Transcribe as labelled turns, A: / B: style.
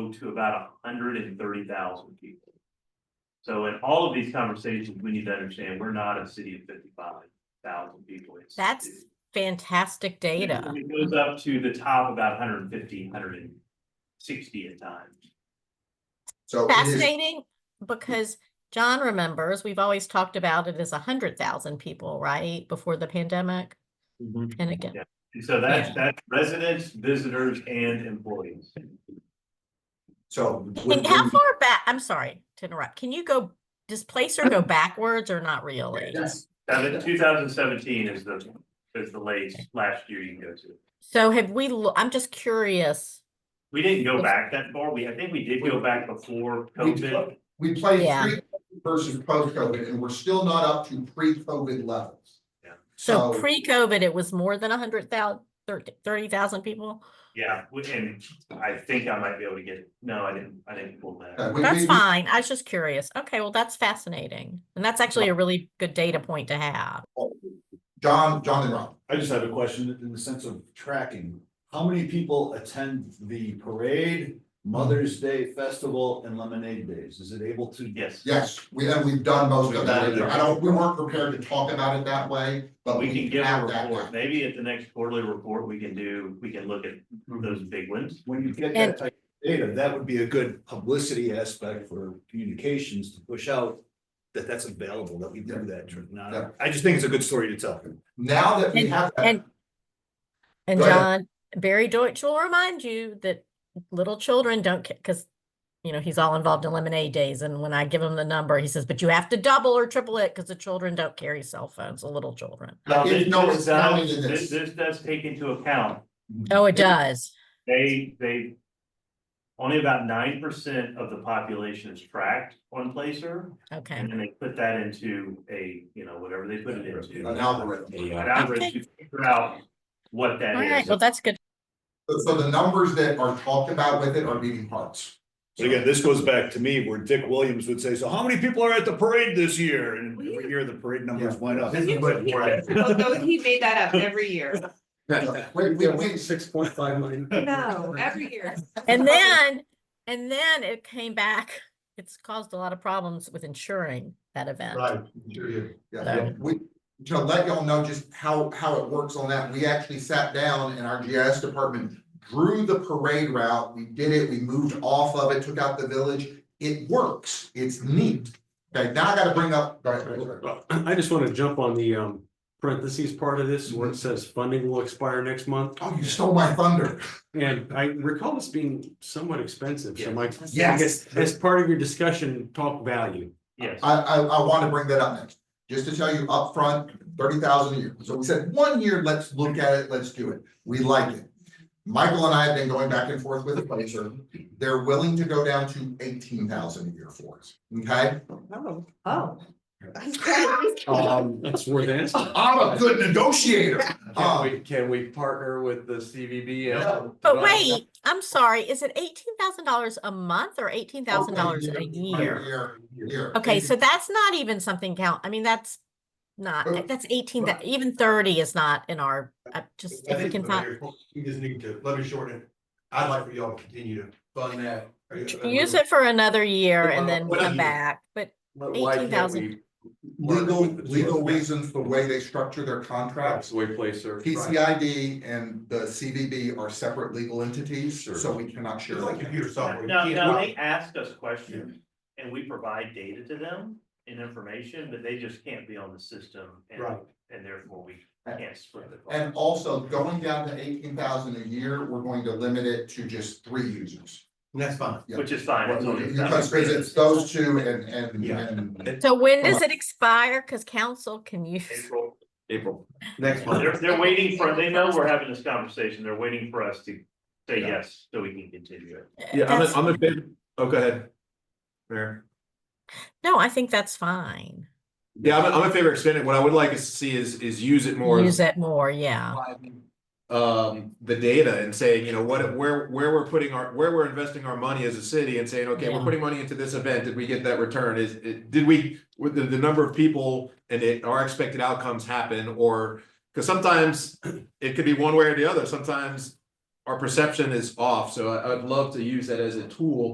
A: home to about hundred and thirty thousand people. So in all of these conversations, we need to understand, we're not a city of fifty-five thousand people. It's-
B: That's
A: it's-
B: fantastic data.
A: It goes up to the top about 150, 160 at times.
C: So it is,
B: Fascinating, because John remembers, we've always talked about it as a hundred thousand people, right, before the pandemic? And again,
A: Yeah. And so that's, that's residents, visitors and employees.
C: so.
B: and
C: would-
B: how
C: would-
B: far back, I'm sorry to interrupt, can you go, does Placer go backwards or not really?
C: Yes.
A: Seven, two thousand seventeen is the, is the latest, last year you can go to.
B: So have we, lo- I'm just curious,
A: We didn't go back that far. We, I think we did go back before
C: We
A: COVID.
C: played- we played
B: Yeah.
C: pre versus post-COVID, and we're still not up to pre-COVID levels.
A: Yeah.
B: so pre-COVID, it was more than a hundred thousand, thirty thousand people?
A: Yeah, we- and I think I might be able to get, it. no, I didn't, I didn't pull
C: uh,
A: that.
C: we-
B: That's
C: we-
B: fine, I was just curious, okay, well, that's fascinating, and that's actually a really good data point to have.
C: John, John and Rob,
D: I just have a question in the sense of tracking. How many people attend the parade,
C: Mm.
D: Mother's Day Festival and Lemonade Days? Is it able to?
A: Yes,
C: yes, we, and we've done most of that, I don't, we weren't prepared to talk about it that way, but
A: we can give a
C: have that.
A: report. Maybe at the next quarterly report, we can do, we can look at
C: Mm-hmm.
A: those big ones.
D: When you get
B: And-
D: that type of data, that would be a good publicity aspect for communications to push out. That that's available, that we do that. tr-
C: Yeah.
D: Now, I just think it's a good story to tell.
C: Now that we
B: And-
C: have that.
B: and- And
C: Go ahead.
B: John, Barry Deutsch will remind you that little children don't, because, you know, he's all involved in lemonade days, and when I give him the number, he says, but you have to double or triple it, because the children don't carry cell phones, the little children.
A: Now,
C: If
A: this-
C: no,
A: this
C: it's
A: does- uh,
C: counting in
A: This,
C: this.
A: this does take into account,
B: Oh, it does.
A: they, they. Only about nine percent of the population is tracked on Placer,
B: Okay.
A: and then they put that into a, you know, whatever they put it into.
C: An algorithm.
A: An algorithm to figure out what
B: All
A: that
B: right,
A: is.
B: well, that's good.
C: So- So the numbers that are talked about with it are beating hearts.
D: But again, this goes back to me where Dick Williams would say, so how many people are at the parade this year? And every year the parade numbers went up.
C: This is what- right.
E: Although Oh, he made that up every year.
C: Wait, wait, wait,
F: Six point five million.
E: No, every year.
B: And then, and then it came back, it's caused a lot of problems with insuring that event.
C: Right, sure you- yeah,
B: So-
C: we, to let y'all know just how, how it works on that, we actually sat down in our GIS department, drew the parade route, we did it, we moved off of it, took out the village, it works, it's neat. Okay, now I gotta bring up, go ahead, go ahead, go ahead.
F: I just want to jump on the um parentheses part of this
G: Mm-hmm.
F: where it says funding will expire next month.
C: oh, you stole my thunder,
F: And I recall this being somewhat expensive, so my. I
C: yes,
F: guess as part of your discussion, talk value.
A: Yes,
C: I, I, I wanna bring that up next. Just to tell you upfront, thirty thousand a year, so we said, one year, let's look at it, let's do it, we like it. Michael and I have been going back and forth with the Placer, they're willing to go down to eighteen thousand a year for us, okay?
E: Oh, oh.
F: Um, it's worth it.
C: I'm a good negotiator. Uh,
H: Can we, can we partner with the CVB?
C: No.
H: and-
B: But wait, I'm sorry, is it eighteen thousand dollars a month or eighteen thousand dollars a year?
C: Year.
B: Okay, so that's not even something count, I mean, that's
C: Well,
B: not, that's eighteen, that, even thirty is not in our, uh, just, if we can find,
G: You just need to, let me shorten it. I'd like for y'all to continue to fund that.
B: use it for another year and then
G: Well,
B: come
G: you-
B: back, but
H: But why can't
B: 18,000.
H: we work
C: Legal,
H: with the two
C: legal
H: of them?
C: reasons, the way they structure their
H: That's
C: contracts,
H: the way Placer.
C: PCID and the CVB are separate legal entities, so we cannot share.
G: It's like computer software. you
A: now,
G: can't-
A: now they ask us questions and we provide data to them and information, but they just can't be on the system. and-
F: Right.
A: And therefore we can't split it.
C: And also, going down to eighteen thousand a year, we're going to limit it to just three users.
G: And that's fine.
C: yeah.
A: Which is fine. it's only-
C: Because it's those two and, and,
D: Yeah.
C: and,
B: so when does
C: Well-
B: it expire? Cause council can use,
A: April.
H: April.
G: Next one.
A: They're, they're waiting for, they know we're having this conversation. They're waiting for us to say yes, so we can continue it.
H: Yeah, I'm, a-
B: that's,
H: I'm a bit, oh, go ahead. Mayor.
B: no, I think that's fine,
H: Yeah, I'm, I'm in favor of expanding. What I would like us to see is, is use it more.
B: use it more, yeah.
H: Um, the data and saying, you know, what, where, where we're putting our, where we're investing our money as a city and saying, okay,
B: Yeah.
H: we're putting money into this event. Did we get that return? Is, it- did we, with the, the number of people and it, our expected outcomes happen or? Cause sometimes it could be one way or the other. Sometimes our perception is off, so I, I'd love to use that as a tool